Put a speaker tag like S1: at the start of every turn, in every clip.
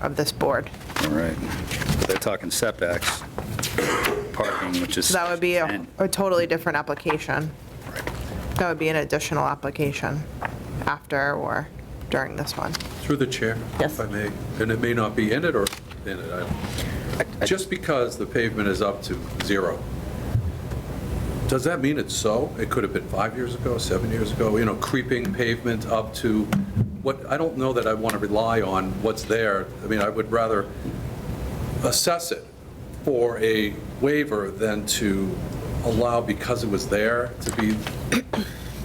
S1: of this board.
S2: All right. But They're talking setbacks, parking, which is.
S1: So that would be a
S2: 10.
S1: a totally different application. That would be an additional application after or during this one.
S3: Through the chair.
S4: Yes.
S3: If I may, and it may not be in it or in it, I don't. Just because the pavement is up to zero, does that mean it's so? It could have been five years ago, seven years ago, you know, creeping pavement up to, what, I don't know that I want to rely on what's there. I mean, I would rather assess it for a waiver than to allow because it was there to be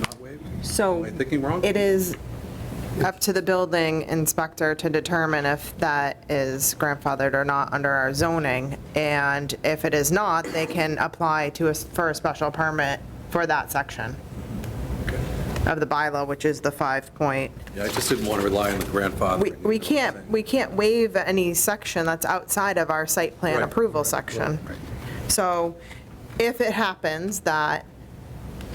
S3: not waived.
S4: So.
S3: Am I thinking wrong?
S1: It is up to the building inspector to determine if that is grandfathered or not under our zoning. And if it is not, they can apply to us for a special permit for that section of the bylaw, which is the five point.
S3: Yeah, I just didn't want to rely on the grandfather.
S1: We, we can't, we can't waive any section that's outside of our site plan
S3: Right.
S1: approval section. So if it happens that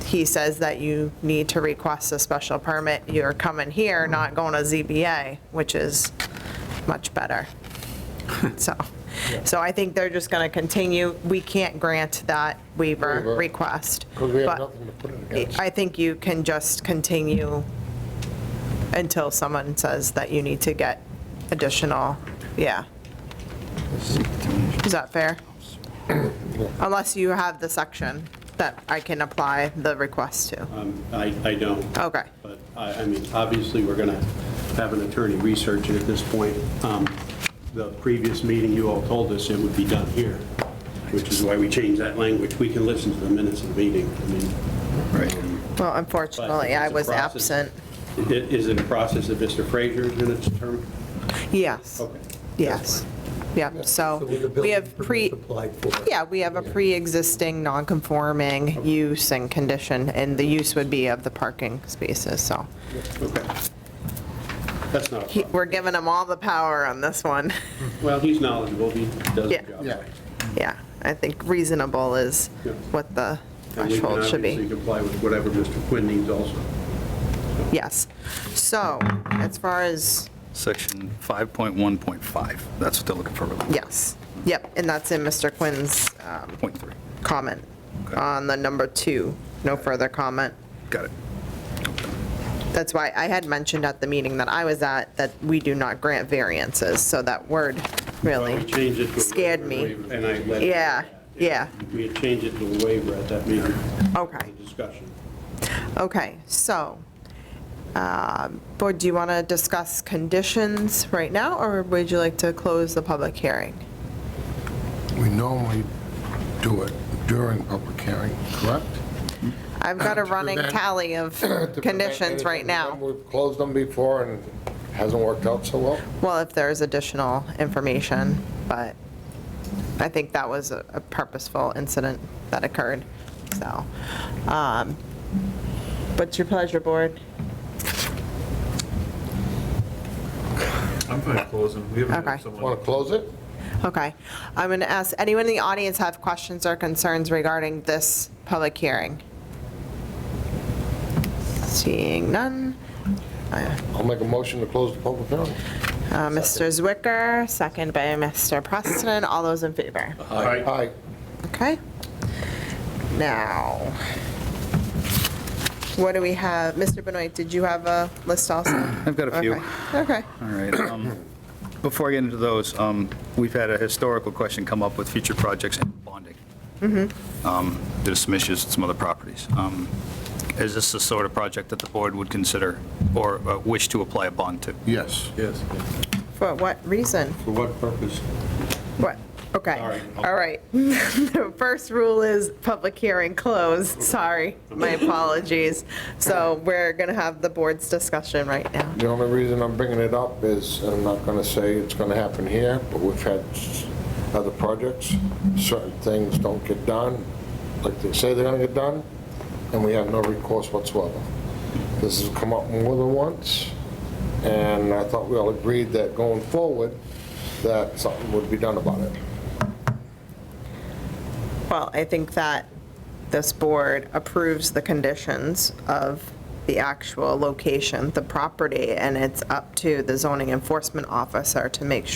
S1: he says that you need to request a special permit, you're coming here,
S3: Mm-hmm.
S1: not going to ZBA, which is much better. So, so I think they're just going to continue, we can't grant that waiver
S5: Waiver.
S1: request.
S5: Because we have
S1: but-
S5: nothing to put it against.
S1: I think you can just continue until someone says that you need to get additional, yeah. Is that fair? Unless you have the section that I can apply the request to.
S6: Um, I, I don't.
S1: Okay.
S6: But I, I mean, obviously, we're going to have an attorney research it at this point. Um, The previous meeting, you all told us it would be done here, which is why we changed that language. We can listen to the minutes of the meeting. I mean,
S2: Right.
S1: Well,
S6: but
S1: unfortunately,
S6: it's
S1: I
S6: a
S1: was
S6: process.
S1: absent.
S6: I- Is it a process that Mr. Frazier is going to determine?
S1: Yes,
S6: Okay.
S1: yes. Yep, so
S5: with the
S1: Oh, we
S5: building
S1: have pre,
S5: permit Applied for.
S1: yeah, we have a pre-existing non-conforming use and condition, and the use would be of the parking spaces, so.
S6: Okay. That's not a
S1: He-
S6: problem.
S1: We're giving him all the power on this one.
S6: Well, he's knowledgeable, he does the
S1: Yeah.
S6: job.
S5: Yeah.
S1: Yeah, I think reasonable is
S6: Yeah.
S1: what the
S6: And we can
S1: threshold should
S6: obviously
S1: be.
S6: comply with whatever Mr. Quinn needs also.
S1: Yes. So as far as,
S2: Section 5.1.5, that's what they're looking for, really.
S1: yes, yep, and that's in Mr. Quinn's um,
S2: Point three.
S1: comment
S2: Okay.
S1: on the number two, no further comment.
S2: Got it.
S1: That's why I had mentioned at the meeting that I was at that we do not grant variances, so that word
S6: Well, we
S1: really
S6: changed it to. a
S1: scared me.
S6: waiver, And I let.
S1: Yeah, yeah,
S6: We had changed it to a waiver at that meeting,
S1: okay.
S6: the discussion.
S1: Okay, so, um, Board, do you want to discuss conditions right now, or would you like to close the public hearing?
S5: We normally do it during public hearing, correct?
S1: I've got a
S5: To
S1: running
S5: prevent-
S1: tally of
S5: To prevent
S1: conditions right
S5: anything.
S1: now.
S5: We've closed them before and hasn't worked out so well.
S1: Well, if there's additional information, but I think that was a a purposeful incident that occurred, so. um, What's your pleasure, Board?
S7: I'm fine with closing. We haven't
S1: Okay.
S7: had someone.
S5: Want to close it?
S1: Okay. I'm going to ask, anyone in the audience have questions or concerns regarding this public hearing? Seeing none. Uh,
S5: I'll make a motion to close the public hearing.
S1: uh, Mr. Zwicker, second by Mr. Preston. All those in favor?
S5: Aye.
S1: Okay. Now, what do we have? Mr. Benoit, did you have a list also?
S2: I've got a few.
S1: Okay. Okay.
S2: All right. um, Before I get into those, um, we've had a historical question come up with future projects and bonding.
S1: Mm-hmm.
S2: Um, There's some issues with some other properties. Um, Is this the sort of project that the board would consider or uh, wish to apply a bond to?
S5: Yes.
S3: Yes.
S1: For what reason?
S6: For what purpose?
S1: What? Okay, all right. The first rule is public hearing closed, sorry, my apologies. So we're going to have the board's discussion right now.
S5: The only reason I'm bringing it up is, I'm not going to say it's going to happen here, but we've had s- other projects, certain things don't get done, like they say they're going to get done, and we have no recourse whatsoever. This has come up more than once, and I thought we all agreed that going forward, that something would be done about it.
S1: Well, I think that this board approves the conditions of the actual location, the property, and it's up to the zoning enforcement officer to make sure.